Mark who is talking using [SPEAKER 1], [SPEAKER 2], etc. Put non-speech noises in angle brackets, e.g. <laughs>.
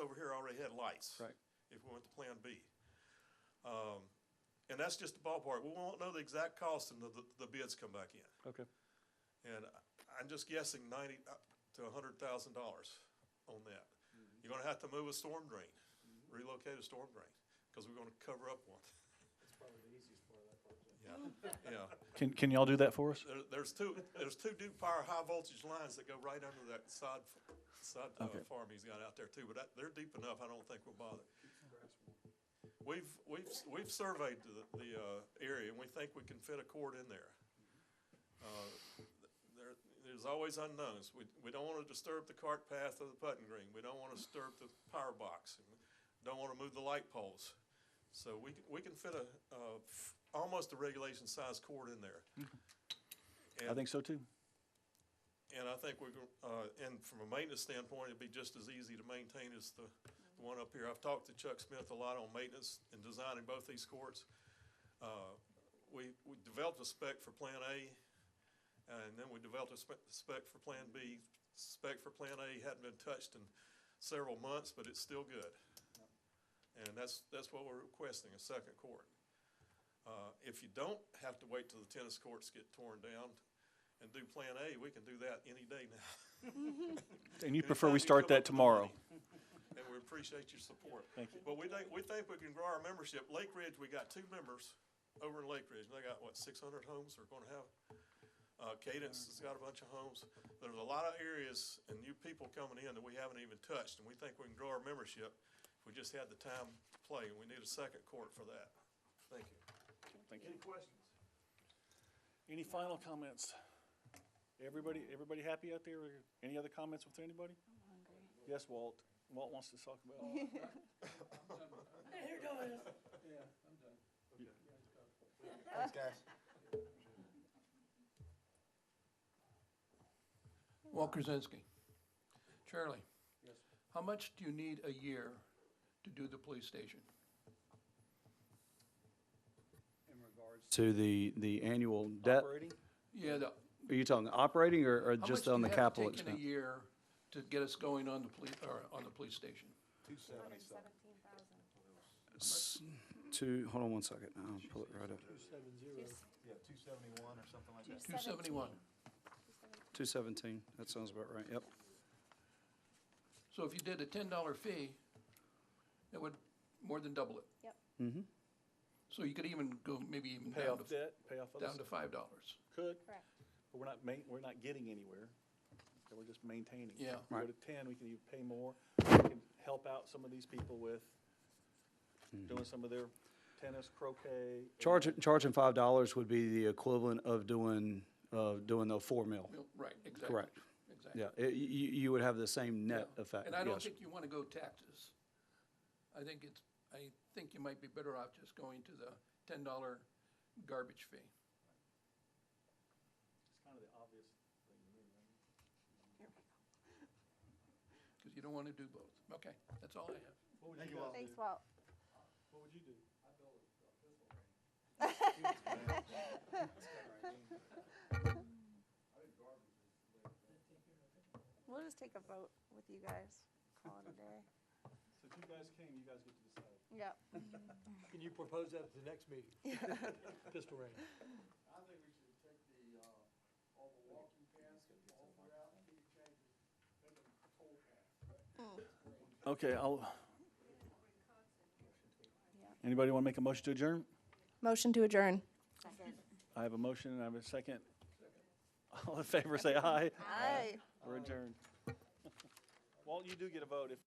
[SPEAKER 1] over here already had lights.
[SPEAKER 2] Right.
[SPEAKER 1] If we went to Plan B. Um, and that's just the ballpark. We won't know the exact cost until the, the bids come back in.
[SPEAKER 2] Okay,
[SPEAKER 1] And I- I'm just guessing ninety up to a hundred thousand dollars on that. You're gonna have to move a storm drain, relocate a storm drain, because we're gonna cover up one. <laughs>
[SPEAKER 3] That's probably the easiest part of that project.
[SPEAKER 1] Yeah, yeah.
[SPEAKER 2] can, can y'all do that for us?
[SPEAKER 1] There, there's two, there's two Duke Power high voltage lines that go right under that side, f- side uh,
[SPEAKER 2] Okay.
[SPEAKER 1] farm he's got out there too, but that, they're deep enough, I don't think we'll bother. We've, we've, we've surveyed the, the, uh, area and we think we can fit a cord in there. Uh, There, there's always unknowns. We, we don't wanna disturb the cart path of the putting green. We don't wanna disturb the power box. and we Don't wanna move the light poles. So we, can- we can fit a, uh, f- almost a regulation size cord in there.
[SPEAKER 2] <laughs> I think so too.
[SPEAKER 1] And I think we're, gon- uh, and from a maintenance standpoint, it'd be just as easy to maintain as the, the one up here. I've talked to Chuck Smith a lot on maintenance and designing both these courts. Uh, we, we developed a spec for Plan A, and then we developed a spec, spec for Plan B. Spec for Plan A hadn't been touched in several months, but it's still good. And that's, that's what we're requesting, a second court. Uh, if you don't have to wait till the tennis courts get torn down and do Plan A, we can do that any day now.
[SPEAKER 2] And you
[SPEAKER 1] Anytime
[SPEAKER 2] prefer we
[SPEAKER 1] come
[SPEAKER 2] start
[SPEAKER 1] up
[SPEAKER 2] that
[SPEAKER 1] with the
[SPEAKER 2] tomorrow?
[SPEAKER 1] money. And we appreciate your support.
[SPEAKER 2] Thank you.
[SPEAKER 1] But we think, we think we can grow our membership. Lake Ridge, we got two members over in Lake Ridge, and they got, what, six hundred homes they're gonna have? Uh, Cadence has got a bunch of homes. There's a lot of areas and new people coming in that we haven't even touched, and we think we can grow our membership if we just had the time to play, and we need a second court for that. Thank you.
[SPEAKER 2] Thank
[SPEAKER 1] Any questions?
[SPEAKER 2] Any final comments? Everybody, everybody happy out there? Or Any other comments with anybody? Yes, Walt. Walt wants to talk about.
[SPEAKER 4] Thanks, guys.
[SPEAKER 5] Walt Krasinski. Charlie,
[SPEAKER 3] Yes.
[SPEAKER 5] how much do you need a year to do the police station?
[SPEAKER 3] In regards
[SPEAKER 6] To the, the annual debt, are
[SPEAKER 3] Operating?
[SPEAKER 5] Yeah, the,
[SPEAKER 6] you talking the operating or,
[SPEAKER 5] how
[SPEAKER 6] or
[SPEAKER 5] much
[SPEAKER 6] just
[SPEAKER 5] do
[SPEAKER 6] on
[SPEAKER 5] you
[SPEAKER 6] the
[SPEAKER 5] have
[SPEAKER 6] capital
[SPEAKER 5] taken a
[SPEAKER 6] expense?
[SPEAKER 5] year to get us going on the police, or on the police station?
[SPEAKER 3] Two
[SPEAKER 6] To, hold on one second, I'll pull it right up.
[SPEAKER 3] Two seven zero.
[SPEAKER 4] Yeah, two seventy-one or something like that.
[SPEAKER 5] Two seventy-one.
[SPEAKER 6] Two seventeen, that sounds about right, yep.
[SPEAKER 5] So if you did a ten dollar fee, that would more than double it.
[SPEAKER 7] Yep.
[SPEAKER 6] Mm-hmm.
[SPEAKER 5] So you could even go maybe even
[SPEAKER 2] Pay
[SPEAKER 5] down
[SPEAKER 2] off
[SPEAKER 5] to,
[SPEAKER 2] debt, pay off
[SPEAKER 5] down
[SPEAKER 2] others.
[SPEAKER 5] to five dollars.
[SPEAKER 2] Could,
[SPEAKER 7] Correct.
[SPEAKER 2] but we're not ma, we're not getting anywhere. So We're just maintaining.
[SPEAKER 5] Yeah.
[SPEAKER 2] We Go
[SPEAKER 6] Right.
[SPEAKER 2] to ten, we can even pay more. We can help out some of these people with doing some of their tennis, croquet.
[SPEAKER 6] Charging, charging five dollars would be the equivalent of doing, of doing the four mil.
[SPEAKER 5] Well, Right, exactly.
[SPEAKER 6] Correct.
[SPEAKER 5] Exactly.
[SPEAKER 6] Yeah, it- you, you would have the same net
[SPEAKER 5] Yeah.
[SPEAKER 6] effect,
[SPEAKER 5] And I don't
[SPEAKER 6] yes.
[SPEAKER 5] think you want to go taxes. I think it's, I think you might be better off just going to the ten dollar garbage fee.
[SPEAKER 2] It's kind of the obvious thing to me, right?
[SPEAKER 5] Because you don't want to do both. Okay, that's all I have.
[SPEAKER 2] What would you guys do?
[SPEAKER 7] Thanks, Walt.
[SPEAKER 2] What would you do?
[SPEAKER 7] <laughs> We'll just take a vote with you guys. Call it a <laughs> day.
[SPEAKER 2] So if you guys came, you guys get to decide.
[SPEAKER 7] Yep.
[SPEAKER 3] Can you propose that at the next meeting? <laughs> Pistol range.
[SPEAKER 8] I think we should take the, uh, all the walking paths, all the way out, and we change it, make them toll paths.
[SPEAKER 2] Okay, I'll,
[SPEAKER 7] Yeah.
[SPEAKER 2] anybody want to make a motion to adjourn?
[SPEAKER 7] Motion to adjourn.
[SPEAKER 2] I have a motion and I have a second. All in favor, say aye.
[SPEAKER 7] Aye.
[SPEAKER 2] We're adjourned. Walt, you do get a vote if